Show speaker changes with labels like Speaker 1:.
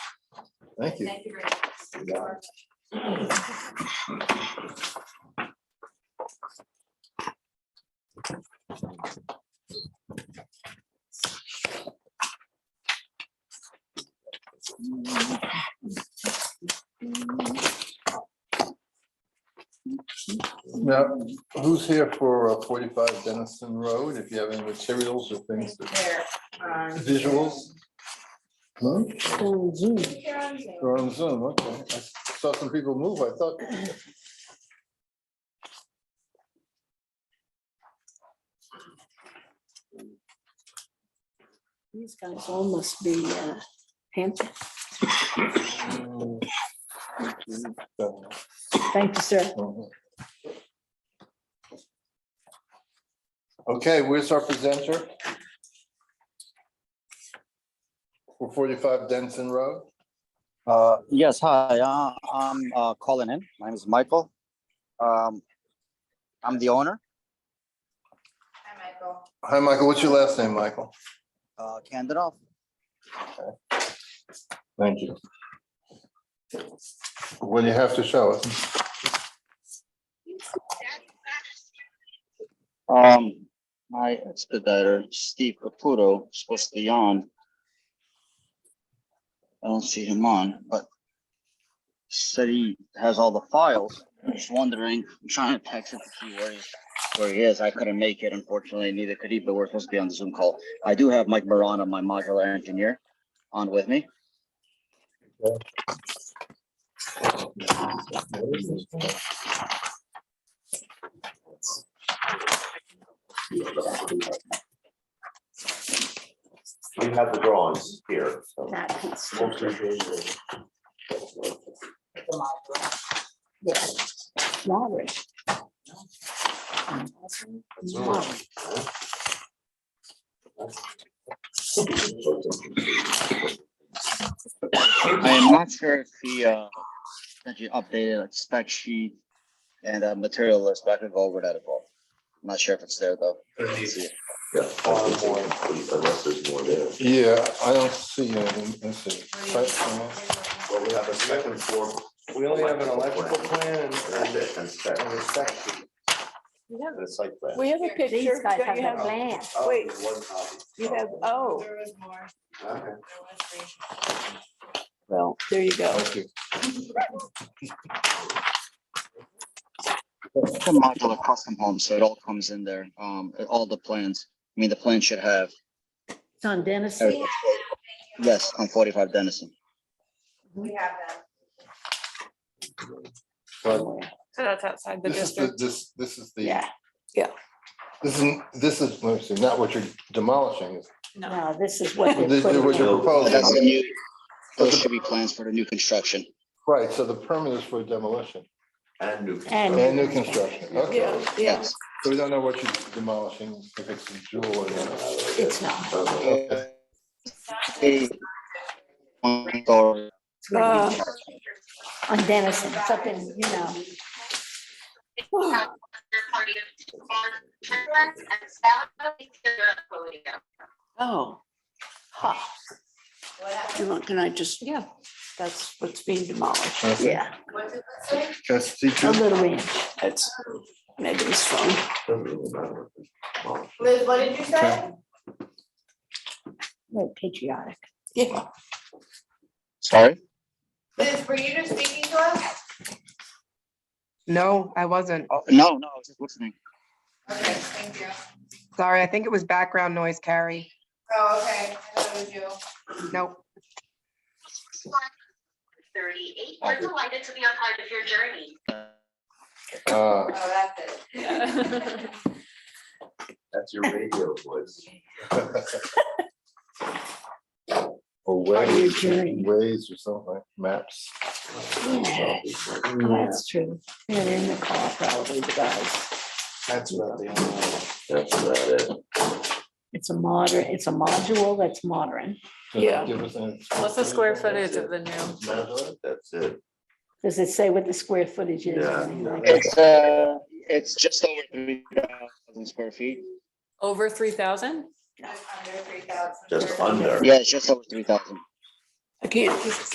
Speaker 1: Thank you.
Speaker 2: Thank you very much.
Speaker 1: You got Now, who's here for uh, forty-five Dennison Road? If you have any materials or things, that-
Speaker 2: There, um,
Speaker 1: visuals? No?
Speaker 3: Oh,
Speaker 2: here on Zoom.
Speaker 1: We're on Zoom, okay. I saw some people move, I thought.
Speaker 3: These guys all must be uh, handsome. Thank you, sir.
Speaker 1: Okay, where's our presenter? For forty-five Denson Road?
Speaker 4: Uh, Yes, hi, uh, I'm uh, calling in. My name is Michael. Um, I'm the owner,
Speaker 2: Hi, Michael.
Speaker 1: Hi, Michael, what's your last name, Michael?
Speaker 4: uh, Candidoff.
Speaker 1: Thank you. What do you have to show us?
Speaker 4: Um, My expediter, Steve Caputo, is supposed to be on. I don't see him on, but said he has all the files. I'm Just wondering, I'm trying to text him to see where he, where he is. I couldn't make it unfortunately, neither could he, but we're supposed to be on the Zoom call. I do have Mike Marana, my modular engineer, on with me.
Speaker 5: We have the drawings here, so.
Speaker 3: That is- Robert. Robert.
Speaker 4: I am not sure if he, uh, that you updated like spec sheet and uh, material list, but I could go over that as well. I'm not sure if it's there though. See it.
Speaker 5: Yeah, I think it's complete, Unless there's more there.
Speaker 1: Yeah, I don't see anything. Let's see. Site plan.
Speaker 5: Well, we have a second floor.
Speaker 6: We only have an electrical plan and
Speaker 5: That's it, and spec,
Speaker 6: and a section.
Speaker 5: and a site plan.
Speaker 7: We have a
Speaker 3: These
Speaker 7: picture,
Speaker 3: guys
Speaker 7: don't
Speaker 3: have
Speaker 7: you
Speaker 3: the
Speaker 7: have,
Speaker 3: land.
Speaker 5: Oh,
Speaker 7: wait.
Speaker 5: there's one copy.
Speaker 7: you have, oh,
Speaker 2: There was more.
Speaker 5: Okay.
Speaker 2: There was three.
Speaker 4: Well,
Speaker 7: there you go.
Speaker 1: Thank you.
Speaker 4: it's a modular custom home, so it all comes in there. Um, all the plans, I mean, the plan should have,
Speaker 3: It's on Dennis.
Speaker 4: everything. yes, on forty-five Dennison.
Speaker 2: We have them.
Speaker 1: But
Speaker 8: So that's outside the
Speaker 1: This is the,
Speaker 8: district.
Speaker 1: this, this is the.
Speaker 7: Yeah, yeah.
Speaker 1: This is, this is, let me see, not what you're demolishing, it's
Speaker 3: No, this is what
Speaker 1: This
Speaker 3: they're
Speaker 1: is what
Speaker 3: putting
Speaker 1: you're
Speaker 3: in.
Speaker 4: But That's the
Speaker 1: proposing,
Speaker 4: new, those should be plans for the new construction.
Speaker 1: right, so the permit is for demolition
Speaker 5: And new.
Speaker 3: And-
Speaker 1: and new construction, okay,
Speaker 7: yeah, yeah.
Speaker 4: Yes.
Speaker 1: so we don't know what you're demolishing, if it's a jewel or not.
Speaker 3: It's not.
Speaker 5: Okay.
Speaker 1: Okay.
Speaker 4: Hey, one door.
Speaker 3: It's gonna be
Speaker 7: Uh.
Speaker 3: On Dennison, it's up in, you know,
Speaker 7: Oh, ha,
Speaker 2: What happened?
Speaker 7: you know, can I just? Yeah. That's what's being demolished.
Speaker 1: That's it.
Speaker 3: yeah,
Speaker 2: What did that say?
Speaker 1: That's the
Speaker 3: a
Speaker 1: truth.
Speaker 3: little ranch.
Speaker 7: That's maybe his phone.
Speaker 5: Doesn't really matter. Well,
Speaker 2: Liz, what did you say?
Speaker 3: Very patriotic.
Speaker 7: Yeah,
Speaker 4: Sorry?
Speaker 2: Liz, were you just speaking to us?
Speaker 9: No, I wasn't.
Speaker 4: Oh, No, no, I was just listening.
Speaker 2: Okay, thank you.
Speaker 9: Sorry, I think it was background noise, Carrie.
Speaker 2: Oh, okay, I thought it was you.
Speaker 9: Nope.
Speaker 10: Thirty-eight, we're delighted to be on part of your journey.
Speaker 1: Uh,
Speaker 2: Oh, that's it.
Speaker 5: That's your radio voice.
Speaker 1: Or
Speaker 3: Part of your
Speaker 1: ways,
Speaker 3: journey.
Speaker 1: ways or something, like maps.
Speaker 3: Yeah, Oh, that's true. They're in the car probably, the guys.
Speaker 6: That's about the only.
Speaker 5: That's about it.
Speaker 3: It's a modern, it's a module that's modern.
Speaker 1: Does it
Speaker 7: Yeah.
Speaker 1: give us an-
Speaker 8: What's the square footage of the new?
Speaker 5: That's it.
Speaker 3: Does it say what the square footage is? or
Speaker 5: Yeah.
Speaker 3: anything like that?
Speaker 4: It's, uh, it's just over three thousand square feet.
Speaker 8: Over three thousand?
Speaker 2: Just under three thousand.
Speaker 5: Just under.
Speaker 4: Yeah, it's just over three thousand.
Speaker 7: I can't